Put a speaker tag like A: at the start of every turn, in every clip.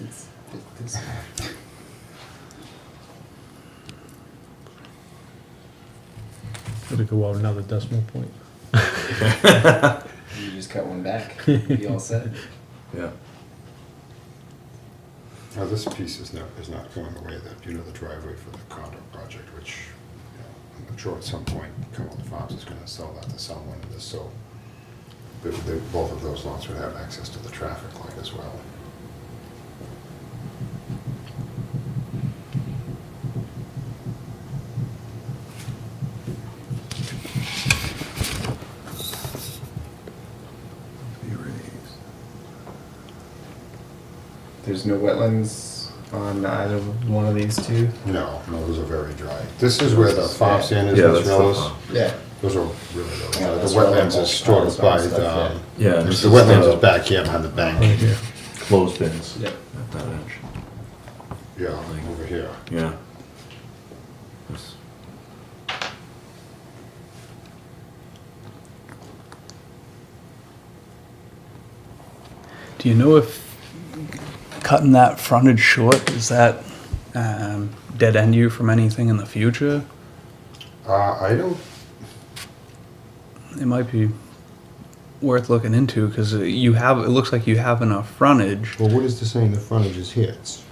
A: it's, it's
B: Gotta go out another decimal point.
A: you just cut one back. Be all set.
C: Yeah.
D: Now, this piece is not, is not going away, that, you know, the driveway for the condo project, which, you know, I'm sure at some point, Cumberland Farms is gonna sell that to someone, and this, so they, they, both of those lots would have access to the traffic light as well.
C: There's no wetlands on either one of these two.
D: No, no, those are very dry. This is where the farm stand is,
E: Yeah,
D: Miss
E: that's the
D: Rose.
E: farm.
A: Yeah.
D: Those are really, those.
A: Yeah,
D: the
A: that's
D: wetlands
A: where
D: is sort
A: all
D: of
A: the
D: by,
A: farm stuff,
D: um,
E: Yeah,
D: the
E: and this is uh,
D: wetlands
E: the
D: is back here behind the
B: Right
D: bank.
B: here.
E: Clothespins.
A: Yep.
E: At that edge.
D: Yeah, over here.
E: Yeah. That's-
F: Do you know if cutting that frontage short, is that um, dead end you from anything in the future?
D: Uh, I don't,
F: It might be worth looking into because you have, it looks like you have enough frontage.
D: well, what is this saying, the frontage is here? It's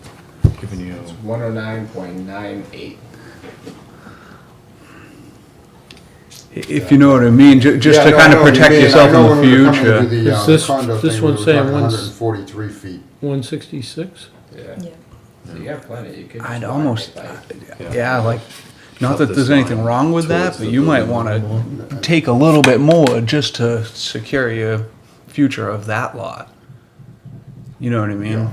E: Giving you.
A: It's one hundred nine point nine eight.
F: i- If you know what I mean, ju- just
D: Yeah,
F: to
D: no,
F: kind
D: I
F: of
D: know what you
F: protect
D: mean. I
F: yourself
D: know
F: in
D: when we were
F: the
D: coming to
F: future.
D: the,
B: Is
D: uh,
B: this-
D: condo
B: this one's
D: thing, we were
B: saying
D: talking
B: once-
D: 143 feet.
B: One sixty-six?
A: Yeah.
G: Yeah.
A: So you have plenty. You could.
F: I'd
A: just
F: almost,
A: walk right
E: Yeah.
F: yeah, like,
E: Cut
F: not that
E: this
F: there's anything
E: line
F: wrong with that,
E: towards
F: but
E: the
F: you might
E: building
F: want
E: a little
F: to take a little bit more just to secure your future of that lot. You know what I mean?
D: Yeah.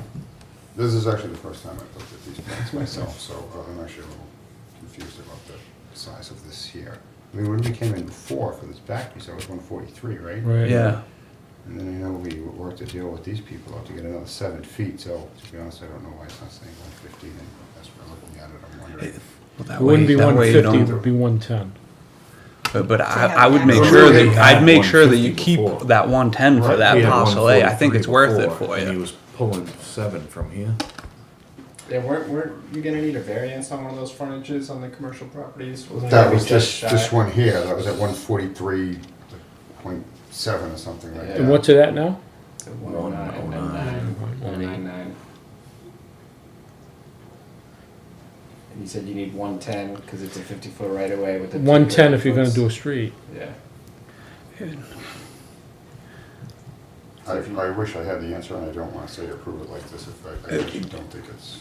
D: This is actually the first time I've looked at these plans myself, so uh, I'm actually a little confused about the size of this here. I mean, when we came in before for this back piece, I was one forty-three, right?
B: Right.
F: Yeah.
D: And then I know we worked a deal with these people out to get another seven feet, so to be honest, I don't know why it's not saying one fifteen, and that's where looking at it, I'm wondering.
F: Well, that
B: It wouldn't
F: way-
B: be
F: that
B: one
F: way you
B: fifty, it
F: don't-
B: would be one ten.
F: But, but I,
G: have
F: I would
G: that.
F: make
D: Well,
F: sure
D: we
F: that,
D: had
F: I'd make sure that you
E: 150
F: keep
E: before.
F: that one ten for
D: Right,
F: that
E: He had
F: parcel A. I think
E: 143
F: it's worth it
E: before,
F: for
E: And he
F: you.
E: was pulling seven from here.
A: by. Yeah. Weren't, weren't you gonna need a variance on one of those frontages on the commercial properties? Wasn't
D: That
A: it
D: was this,
A: shy?
D: this one here, that was at one forty-three point seven or something like that.
B: And what's it at now?
A: So 109.99. 109.99. And you said you need one ten because it's a fifty foot right away with the. two
B: One ten if you're gonna
A: variance.
B: do a street.
A: Yeah.
D: I, I wish I had the answer, and I don't wanna say approve it like this, if I, I actually don't think it's.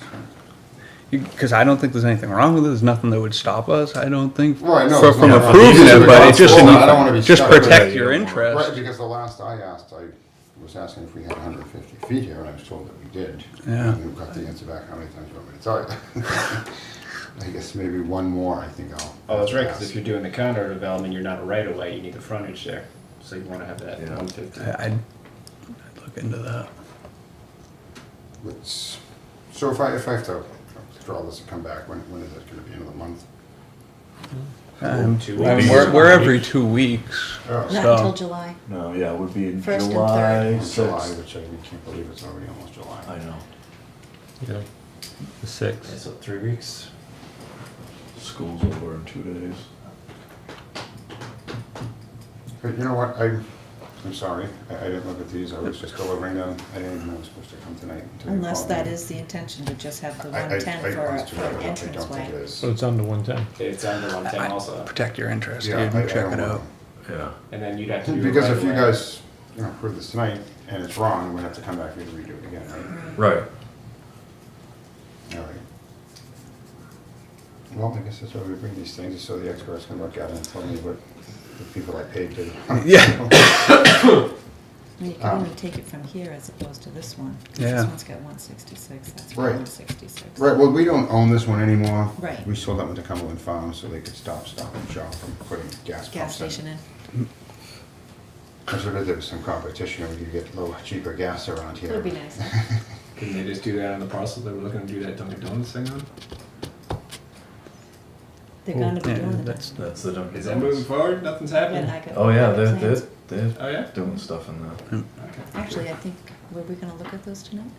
F: Because I don't think there's anything wrong with it. There's nothing that would stop us. I don't think
D: Right, no,
F: for-
D: it's
F: from
D: not-
F: approving
D: it's
F: it, but it just
D: responsible, I don't wanna be
F: just
D: stuck with
F: protect
D: it.
F: your
D: Right,
F: interest.
D: because the last I asked, I was asking if we had hundred and fifty feet here, and I was told that we did.
F: Yeah.
D: And we got the answer back, how many times do you want me to tell you? I guess maybe one more, I think I'll.
H: Oh, that's right, because if
D: ask.
H: you're doing the condo development, you're not a right of way, you need the frontage there. So you want to have that
E: Yeah.
H: one fifty.
F: I- I'd, I'd look into that.
D: Let's- So if I, if I have to draw this and come back, when, when is it gonna be, another month?
F: Um,
H: two
F: we're,
E: weeks.
F: we're every two weeks.
D: Oh,
G: Not
F: So-
G: until July.
E: No, yeah, it would be in
G: First and
E: July
G: third.
D: it's July,
E: sixth.
D: which I can't believe it's already almost
E: I
D: July.
E: know.
B: Yeah. The six.
H: So three weeks.
E: School's over in two days.
D: But you know what, I, I'm sorry, I, I didn't look at these, I was just delivering them, I didn't even know I was supposed to come tonight. until you
G: Unless
D: called
G: that
D: me.
G: is the intention to just have the
D: I- I-
G: one ten
D: I-
G: for a,
D: honest to
G: for
D: God,
G: an
D: I don't- I don't think it
G: entranceway.
D: is.
B: So it's under one ten.
H: It's under one ten
F: I-
H: also.
F: Protect your interest,
D: Yeah,
F: dude.
D: I- I
F: Check
D: don't
F: it
D: know.
F: out.
E: Yeah.
H: And then you'd have to do. a
D: Because if you
H: right-of-way.
D: guys, you know, approve this tonight and it's wrong, we'd have to come back and redo it again,
G: Mm-hmm.
D: right?
E: Right.
D: All right. Well, I guess that's why we bring these things, is so the experts can look at it and tell me what the people I paid did.
F: Yeah.
G: You can
D: Um,
G: only take it from here as opposed to this one. 'cause
F: Yeah.
G: This one's got one sixty-six, that's
D: Right.
G: one sixty-six.
D: Right, well, we don't own this one anymore.
G: Right.
D: We sold that one to Cumberland Farms so they could stop, stop and shop from putting gas pumps in.
G: Gas station in.
D: I sort of, there was some competition, and we could get lower, cheaper gas around here.
G: It would be nice.
H: Couldn't they just do that on the parcel that we're looking to do that Dunkin' Donuts thing on?
G: They're gonna be
F: Yeah,
G: doing the.
F: that's-
E: That's the Dunkin'
H: Is that moving
E: Donuts.
H: forward? Nothing's happening?
E: Oh, yeah, they're, they're,
H: Oh,
E: they're
H: yeah?
E: doing stuff in there.
H: Okay.
G: Actually, I think, were we gonna look at those tonight?